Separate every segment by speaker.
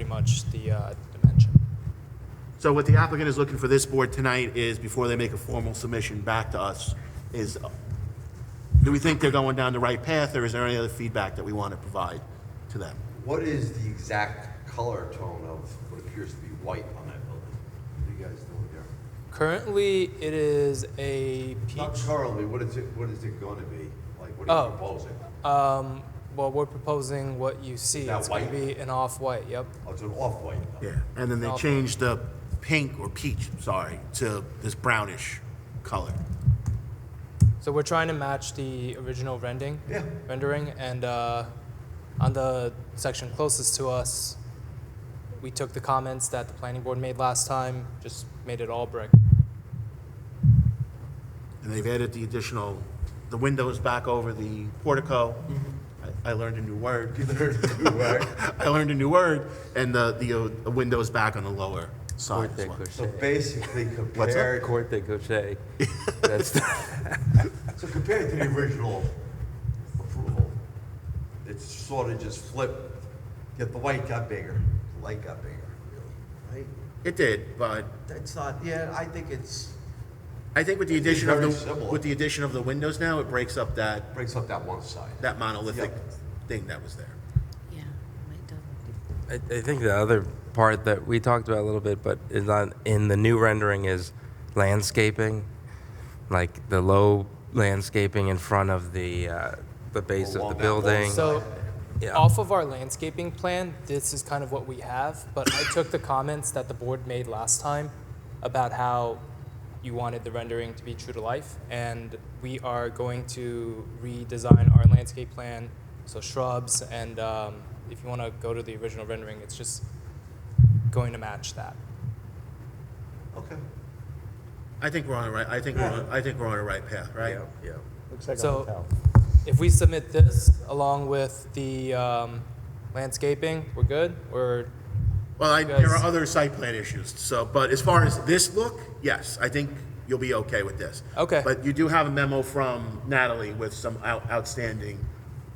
Speaker 1: much the uh, dimension.
Speaker 2: So what the applicant is looking for this board tonight is, before they make a formal submission back to us, is, uh, do we think they're going down the right path, or is there any other feedback that we want to provide to them?
Speaker 3: What is the exact color tone of what appears to be white on that building? What are you guys doing there?
Speaker 1: Currently, it is a
Speaker 3: Not
Speaker 1: peach.
Speaker 3: currently, what is it, what is it going to be? Like, what
Speaker 1: Oh.
Speaker 3: are you proposing?
Speaker 1: Um, well, we're proposing what you see.
Speaker 3: that
Speaker 1: It's going to be
Speaker 3: white?
Speaker 1: an off-white, yep.
Speaker 3: Oh, it's an off-white.
Speaker 2: Yeah, and then they
Speaker 1: Okay.
Speaker 2: changed the pink, or peach, sorry, to this brownish color.
Speaker 1: So we're trying to match the original rendering.
Speaker 3: Yeah.
Speaker 1: Rendering, and uh, on the section closest to us, we took the comments that the planning board made last time, just made it all brick.
Speaker 2: And they've added the additional, the windows back over the portico. I I learned a new word. I learned a new word, and the, the uh, windows back on the lower side as
Speaker 4: Corte
Speaker 2: well.
Speaker 3: So
Speaker 4: Cochet.
Speaker 3: basically compared,
Speaker 4: Corte Cochet. That's the-
Speaker 3: so compared to the original approval, it's sort of just flipped, yet the white got bigger, the light got bigger, really, right?
Speaker 2: It did, but
Speaker 3: That's not, yeah, I think it's,
Speaker 2: I think with the
Speaker 3: It's
Speaker 2: addition of
Speaker 3: very
Speaker 2: the,
Speaker 3: similar.
Speaker 2: with the addition of the windows now, it breaks up that,
Speaker 3: breaks up that one side.
Speaker 2: that monolithic
Speaker 3: Yep.
Speaker 2: thing that was there.
Speaker 5: Yeah, might do.
Speaker 4: I, I think the other part that we talked about a little bit, but is not in the new rendering, is landscaping, like the low landscaping in front of the uh, the base of
Speaker 3: Oh, Along
Speaker 4: the
Speaker 3: that wall
Speaker 4: building.
Speaker 1: So,
Speaker 4: Yeah.
Speaker 1: off of our landscaping plan, this is kind of what we have, but I took the comments that the board made last time about how you wanted the rendering to be true to life, and we are going to redesign our landscape plan, so shrubs, and um, if you want to go to the original rendering, it's just going to match that.
Speaker 3: Okay.
Speaker 2: I think we're on the right, I think we're on, I think we're on the right path, right?
Speaker 4: Yeah, yeah.
Speaker 1: So, if we submit this along with the um, landscaping, we're good? We're
Speaker 2: Well, I,
Speaker 1: guys-
Speaker 2: there are other site plan issues, so, but as far as this look, yes, I think you'll be okay with this.
Speaker 1: Okay.
Speaker 2: But you do have a memo from Natalie with some out- outstanding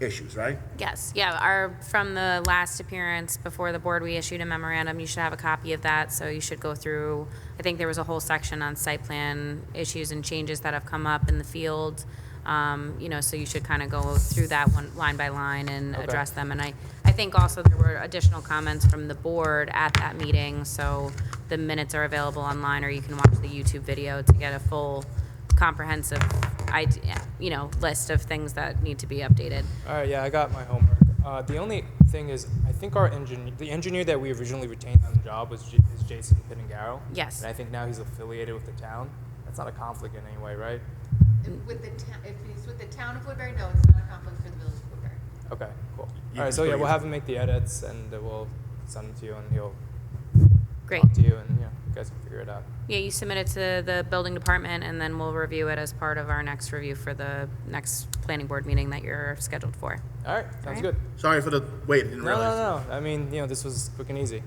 Speaker 2: issues, right?
Speaker 5: Yes, yeah, our, from the last appearance before the board, we issued a memorandum. You should have a copy of that, so you should go through. I think there was a whole section on site plan issues and changes that have come up in the field. Um, you know, so you should kind of go through that one, line by line and
Speaker 1: Okay.
Speaker 5: address them. And I, I think also there were additional comments from the board at that meeting, so the minutes are available online, or you can watch the YouTube video to get a full comprehensive, id- you know, list of things that need to be updated.
Speaker 1: All right, yeah, I got my homework. Uh, the only thing is, I think our engineer, the engineer that we originally retained on the job was J- is Jason Pitangaro.
Speaker 5: Yes.
Speaker 1: And I think now he's affiliated with the town. That's not a conflict in any way, right?
Speaker 6: With the town, if it's with the town of Woodbury, no, it's not a conflict for the village of Woodbury.
Speaker 1: Okay, cool.
Speaker 2: You
Speaker 1: All
Speaker 2: can
Speaker 1: right, so
Speaker 2: still
Speaker 1: yeah, we'll
Speaker 2: use it.
Speaker 1: have him make the edits and uh, we'll send it to you and he'll
Speaker 5: Great.
Speaker 1: talk to you and yeah, you guys can figure it out.
Speaker 5: Yeah, you submit it to the building department, and then we'll review it as part of our next review for the next planning board meeting that you're scheduled for.
Speaker 1: All right, sounds
Speaker 5: right.
Speaker 1: good.
Speaker 2: Sorry for the wait, I didn't
Speaker 1: No,
Speaker 2: realize.
Speaker 1: no, no. I mean, you know, this was quick and easy.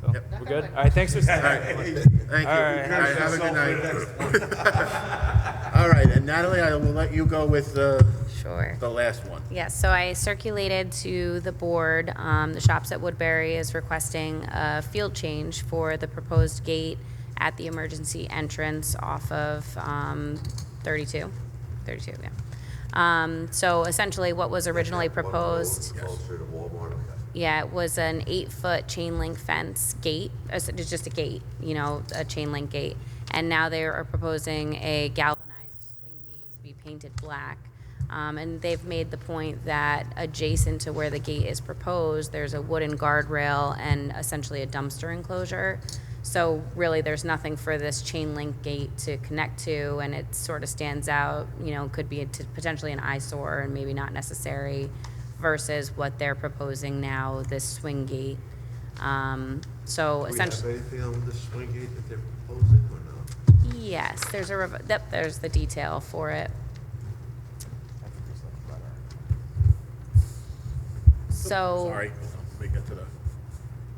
Speaker 1: So
Speaker 2: Yep.
Speaker 1: we're good. All right, thanks for.
Speaker 2: Thank you.
Speaker 1: All right.
Speaker 2: All right, have a good night. All right, and Natalie, I will let you go with the,
Speaker 5: Sure.
Speaker 2: the last one.
Speaker 5: Yes, so I circulated to the board, um, the Shops at Woodbury is requesting a field change for the proposed gate at the emergency entrance off of, um, 32, 32, yeah. Um, so essentially what was originally proposed.
Speaker 3: Closer to Walmart, okay.
Speaker 5: Yeah, it was an eight-foot chain link fence gate. uh, so It's just a gate, you know, a chain link gate. And now they are proposing a galvanized swing gate to be painted black. Um, and they've made the point that adjacent to where the gate is proposed, there's a wooden guardrail and essentially a dumpster enclosure. So really, there's nothing for this chain link gate to connect to, and it sort of stands out, you know, could be a- t- potentially an eyesore and maybe not necessary versus what they're proposing now, this swing gate. Um, So
Speaker 3: Do we have
Speaker 5: essentially,
Speaker 3: anything on the swing gate that they're proposing or no?
Speaker 5: yes, there's a, rev- yep, there's the detail for it. So,
Speaker 2: Sorry, we get to the,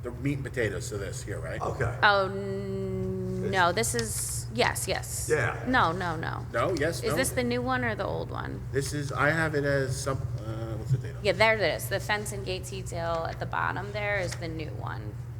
Speaker 2: the meat and potatoes to this here, right?
Speaker 3: Okay.
Speaker 5: oh, n- no, this is, yes, yes.
Speaker 3: Yeah.
Speaker 5: No, no, no.
Speaker 2: No, yes, no?
Speaker 5: Is this the new one or the old one?
Speaker 2: This is, I have it as some, uh, what's the date on it?
Speaker 5: Yeah, there it is. The fence and gate detail at the bottom there is the new one.